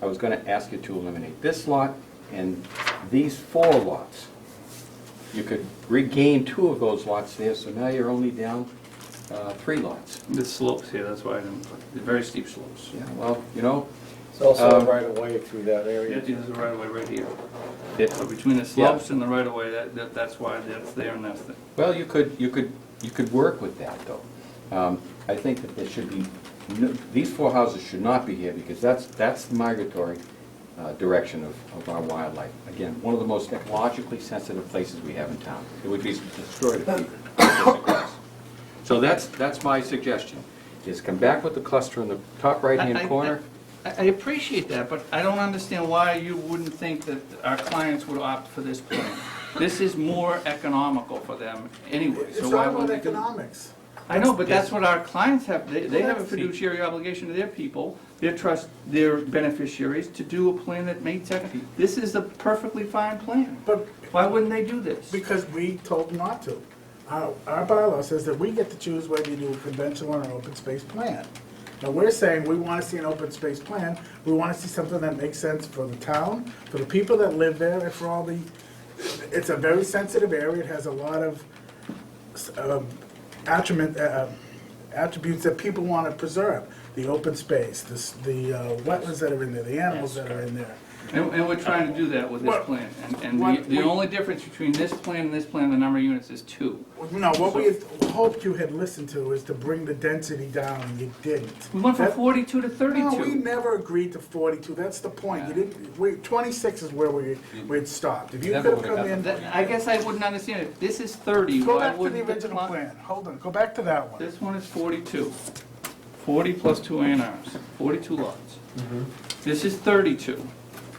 I was gonna ask you to eliminate this lot and these four lots. You could regain two of those lots there, so now you're only down uh, three lots. The slopes here, that's why I didn't, put- they're very steep slopes. Yeah, well, you know, It's also Um, a right of way through that Yeah, area. there's a right of way right here. it- So between the slopes and the right of way, that, that, that's why that's there and that's there. Well, you could, you could, you could work with that, though. Um, I think that there should be, no- these four houses should not be here, because that's, that's the migratory uh, direction of, of our wildlife. Again, one of the most ecologically sensitive places we have in town. It would be destroyed if we put this across. So that's, that's my suggestion, is come back with the cluster in the top I- I- right-hand corner. I I appreciate that, but I don't understand why you wouldn't think that our clients would opt for this plan. This is more economical for them anyway, so It's why all would about they do? economics. I know, but that's what our clients have, they, they have a Well, that's- fiduciary obligation to their people, their trust, their beneficiaries, to do a plan that makes, ec- this is a perfectly fine plan. But Why wouldn't they do this? because we told them not to. Our, our bylaw says that we get to choose whether you do a conventional or an open space plan. Now, we're saying we want to see an open space plan. We want to see something that makes sense for the town, for the people that live there, and for all the, it's a very sensitive area. It has a lot of um, attribute, uh, attributes that people want to preserve. The open space, the, s- the uh, wetlands that are in there, the animals that are in there. And, and we're trying to do that with this Well, plan, and, and what the, the we- only difference between this plan and this plan, the number of units is two. No, what we had hoped you had listened to is to bring the density down, and you didn't. We went from That- forty-two to No, we thirty-two. never agreed to forty-two, that's the point, you Yeah. didn't, we, twenty-six is where we, we'd stopped. If you Never could've would've come in, gotten That, I guess I wouldn't understand, if this is thirty, go why back to the wouldn't the original cli- plan, hold on, go back to that one. This one is forty-two. Forty plus two A and Rs, forty-two lots. This is thirty-two.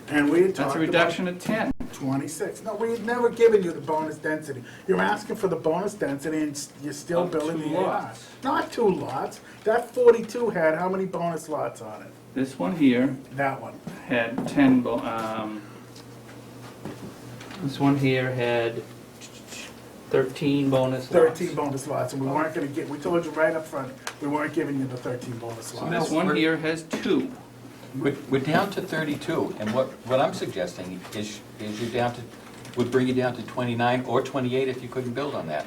And we had That's talked a about reduction of ten. twenty-six, no, we had never given you the bonus density. You're asking for the bonus density and s- you're still Of building two the AR. lots. Not two lots, that forty-two had how many bonus lots on it? This one here That one. had ten, bo- um, this one here had thirteen bonus lots. 13 bonus lots, and we weren't gonna get, we told you right up front, we weren't giving you the 13 bonus So lots. this one here has two. We're, we're down to 32, and what, what I'm suggesting is, is you down to, would bring you down to 29 or 28 if you couldn't build on that.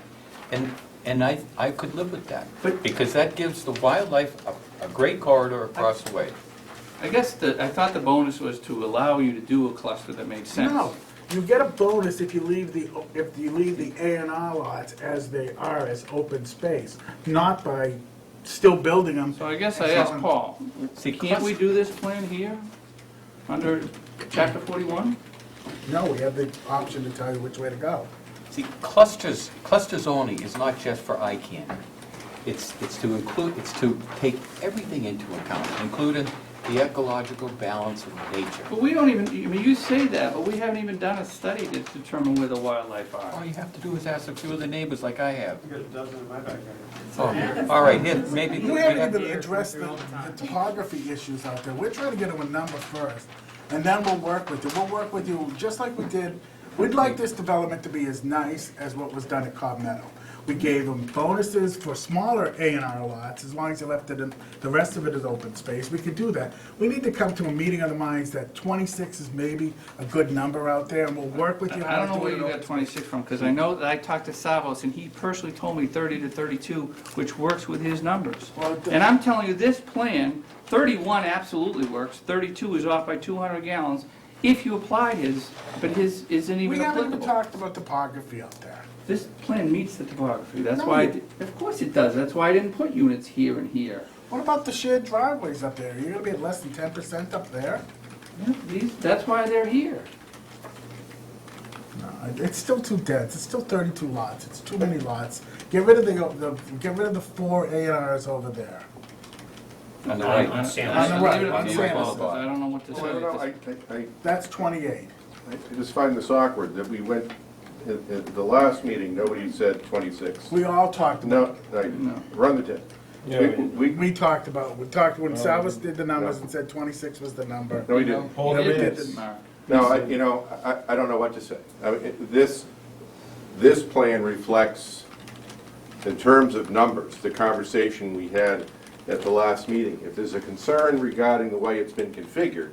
And, and I, I could live with that, But- because that gives the wildlife a, a great corridor across the way. I guess the, I thought the bonus was to allow you to do a cluster that makes sense. No, you get a bonus if you leave the, if you leave the A and R lots as they are, as open space, not by still building them. So I guess I asked Paul, See, can't we clus- do this plan here, under chapter forty-one? No, we have the option to tell you which way to go. See, clusters, cluster zoning is not just for ICANN. It's, it's to include, it's to take everything into account, including the ecological balance of nature. But we don't even, I mean, you say that, but we haven't even done a study to determine where the wildlife All are. you have to do is ask a few of the neighbors like I have. Got a dozen in my backyard. Oh, All right, here, maybe. We we haven't have- even addressed the the topography issues out there. We're trying to get them a number first, and then we'll work with you. We'll work with you, just like we did, we'd like this development to be as nice as what was done at Cobb Meadow. We gave them bonuses for smaller A and R lots, as long as you left it, in- the rest of it is open space. We could do that. We need to come to a meeting of the minds that twenty-six is maybe a good number out there, and we'll work with you. I don't know where you how to do it. got twenty-six from, because I know that I talked to Savos, and he personally told me thirty to thirty-two, which works with his numbers. Well, it- And I'm telling you, this plan, thirty-one absolutely works, thirty-two is off by two hundred gallons, if you apply his, but his isn't We even haven't even applicable. talked about topography out there. This plan meets the topography, that's No, why, I you- di- of course it does, that's why I didn't put units here and here. What about the shared driveways up there? You're gonna be at less than ten percent up there? Yeah, These, that's why they're here. No, Uh, It's still too dense, it's still thirty-two lots, it's too many lots. Get rid of the, the, get rid of the four A and Rs over there. On the I- right. I- On the right, I on leave it Sanderson. up to you, I don't know what to say. Well, I don't know, at I, this- I, I- That's twenty-eight. I just find this awkward that we went, at, at the last meeting, nobody said twenty-six. We all talked about, No, I, run the tape. Yeah, We, we, we talked about, we talked, when Salvas did the numbers and said twenty-six was the number. no, we didn't. Hold Yeah, we it. did. Mark. No, I, you know, I, I don't know what to say. I mean, it- this, this plan reflects, in terms of numbers, the conversation we had at the last meeting. If there's a concern regarding the way it's been configured,